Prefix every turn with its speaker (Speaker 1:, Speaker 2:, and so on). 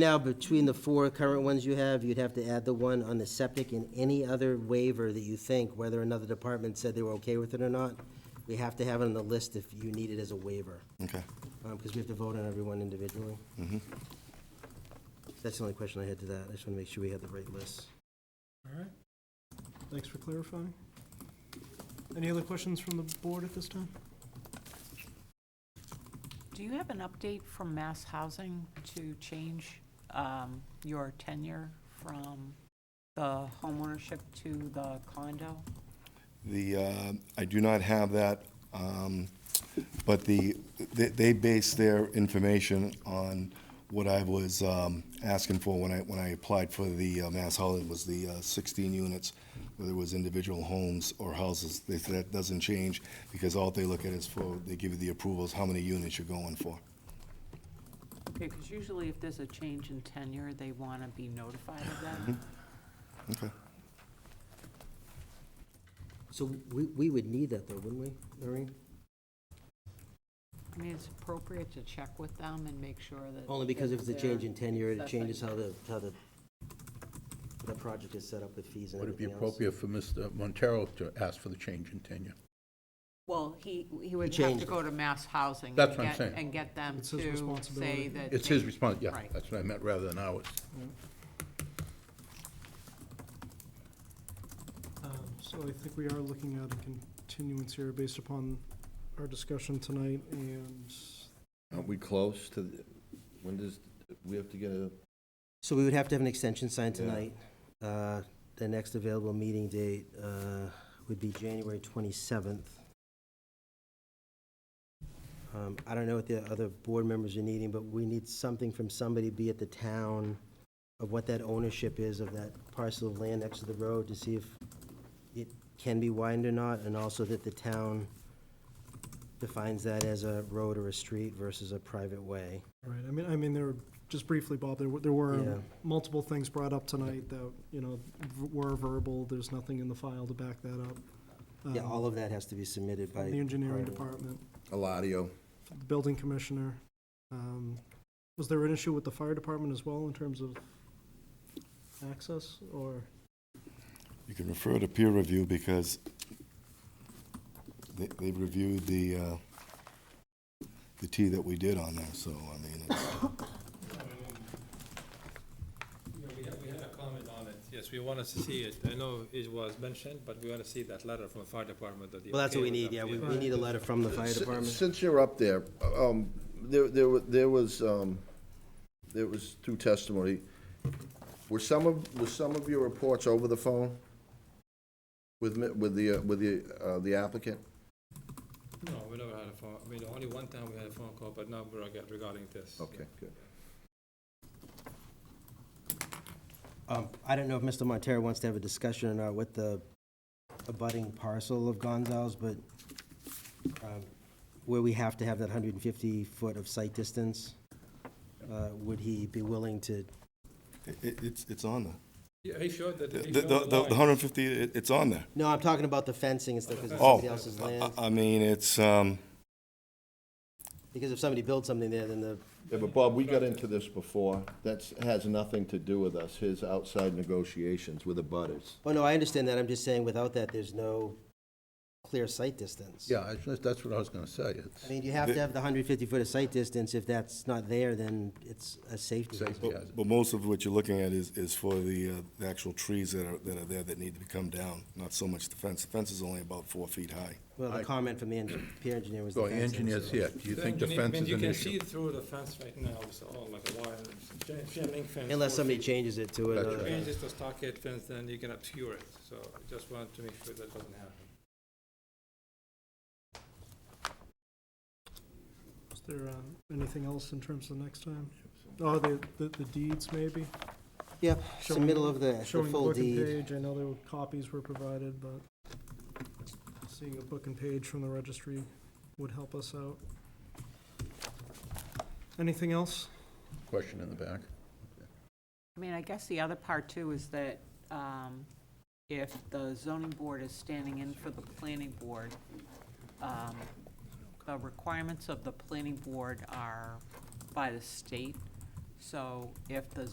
Speaker 1: Now, between the four current ones you have, you'd have to add the one on the septic and any other waiver that you think, whether another department said they were okay with it or not, we have to have it on the list if you need it as a waiver,
Speaker 2: Okay.
Speaker 1: because we have to vote on everyone individually. That's the only question I had to that. I just want to make sure we have the right list.
Speaker 3: All right. Thanks for clarifying. Any other questions from the board at this time?
Speaker 4: Do you have an update from Mass Housing to change um, your tenure from the homeownership to the condo?
Speaker 2: The, uh, I do not have that, um, but the, they- they base their information on what I was um, asking for when I, when I applied for the uh, Mass Housing, was the uh, 16 units, whether it was individual homes or houses. They said that doesn't change, because all they look at is for, they give you the approvals, how many units you're going for.
Speaker 4: Because usually if there's a change in tenure, they want to be notified of
Speaker 1: Mm-hmm.
Speaker 4: that.
Speaker 2: Okay.
Speaker 1: So we, we would need that though, wouldn't we, Noreen?
Speaker 4: I mean, it's appropriate to check with them and make sure that.
Speaker 1: Only because if it's a change in tenure, it
Speaker 4: That's
Speaker 1: changes
Speaker 4: right.
Speaker 1: how the, how the, the project is set up with fees and
Speaker 5: Would it be
Speaker 1: everything else.
Speaker 5: appropriate for Mr. Montero to ask for the change in tenure?
Speaker 4: Well, he, he would have
Speaker 1: changed
Speaker 4: to
Speaker 1: it.
Speaker 4: go to Mass Housing.
Speaker 5: That's
Speaker 4: and
Speaker 5: what I'm
Speaker 4: get-
Speaker 5: saying.
Speaker 4: And get them
Speaker 3: It's his
Speaker 4: to
Speaker 3: responsibility.
Speaker 4: say that.
Speaker 5: It's
Speaker 4: they-
Speaker 5: his response, yeah,
Speaker 4: Right.
Speaker 5: that's what I meant, rather than ours.
Speaker 3: Um, So I think we are looking at a continuance here based upon our discussion tonight and
Speaker 6: Aren't we close to, the- when does, we have to get a,
Speaker 1: So we would have to have an extension signed
Speaker 6: Yeah.
Speaker 1: tonight. Uh, The next available meeting date uh, would be January 27th. Um, I don't know what the other board members are needing, but we need something from somebody, be it the town, of what that ownership is of that parcel of land next to the road to see if it can be widened or not, and also that the town defines that as a road or a street versus a private way.
Speaker 3: All Right, I mean, I mean, there, were- just briefly, Bob, there were, there were
Speaker 1: Yeah.
Speaker 3: multiple things brought up tonight that, you know, v- were verbal, there's nothing in the file to back that up.
Speaker 1: Yeah,
Speaker 3: Um,
Speaker 1: all of that has to be submitted by.
Speaker 3: The engineering
Speaker 1: prior-
Speaker 3: department,
Speaker 6: Eladio?
Speaker 3: the building commissioner. Um, Was there an issue with the fire department as well in terms of access, or?
Speaker 2: You can refer to peer review because they, they reviewed the, uh, the T that we did on there, so, I mean, it's-
Speaker 7: Yeah, Um, we had, we had a comment on it, yes, we wanted to see it, I know it was mentioned, but we want to see that letter from the fire department that they.
Speaker 1: Well, that's what we
Speaker 7: okay with
Speaker 1: need, yeah,
Speaker 7: that,
Speaker 1: we, we need a letter from the fire
Speaker 6: Si-
Speaker 1: department.
Speaker 6: Since you're up there, um, there, there wa- there was, um, there was through testimony, were some of, were some of your reports over the phone with, mi- with the, uh, with the, uh, the applicant?
Speaker 7: No, we never had a phone, I mean, only one time we had a phone call, but now we're reg- regarding this.
Speaker 6: Okay, good.
Speaker 1: Um, I don't know if Mr. Montero wants to have a discussion or not with the abutting parcel of Gonzalez, but, um, where we have to have that hundred and fifty foot of sight distance, uh, would he be willing to,
Speaker 2: it, it's, it's on there.
Speaker 7: Yeah, he showed that. he
Speaker 2: The,
Speaker 7: showed
Speaker 2: the, the
Speaker 7: line.
Speaker 2: hundred and fifty, it, it's on there.
Speaker 1: no, I'm talking about the fencing and stuff, because it's
Speaker 2: Oh,
Speaker 1: somebody else's land.
Speaker 2: I- I mean, it's, um,
Speaker 1: Because if somebody builds something there, then the,
Speaker 6: Yeah, but Bob, we got into this before. That's, has nothing to do with us, his outside negotiations with the butters.
Speaker 1: oh, no, I understand that, I'm just saying without that, there's no clear sight distance.
Speaker 5: Yeah, I- that's what I was gonna say,
Speaker 1: I
Speaker 5: it's
Speaker 1: mean, you have to have the hundred and fifty foot of sight distance, if that's not there, then it's a safety. hazard.
Speaker 5: safety hazard.
Speaker 2: but most of what you're looking at is, is for the, uh, the actual trees that are, that are there that need to be come down, not so much the fence. The fence is only about four feet high.
Speaker 1: Well, the
Speaker 5: I-
Speaker 1: comment from the en- peer engineer was the
Speaker 5: So
Speaker 1: fencing.
Speaker 5: engineers
Speaker 1: so-
Speaker 5: here, do you
Speaker 7: The
Speaker 5: think the
Speaker 7: uh, engineer- I
Speaker 5: fence
Speaker 7: mean,
Speaker 5: is an
Speaker 7: You can see
Speaker 5: issue?
Speaker 7: through the fence right now, it's all like a wire, it's a chain- chain link fence.
Speaker 1: Unless
Speaker 7: four
Speaker 1: somebody
Speaker 7: feet.
Speaker 1: changes it to
Speaker 5: That's
Speaker 7: If
Speaker 1: another.
Speaker 7: you Change it to stockade fence, then you can obscure it, so I just wanted to make sure that doesn't happen.
Speaker 3: Is there um, anything else in terms of next time? Oh, the, the the deeds maybe?
Speaker 1: Yep,
Speaker 3: Showing-
Speaker 1: submittal of the, the
Speaker 3: Showing the
Speaker 1: full
Speaker 3: book and
Speaker 1: deed.
Speaker 3: page, I know there were copies were provided, but seeing a book and page from the registry would help us out. Anything else?
Speaker 5: Question in the back.
Speaker 4: I mean, I guess the other part too is that um, if the zoning board is standing in for the planning board, um, the requirements of the planning board are by the state. So if the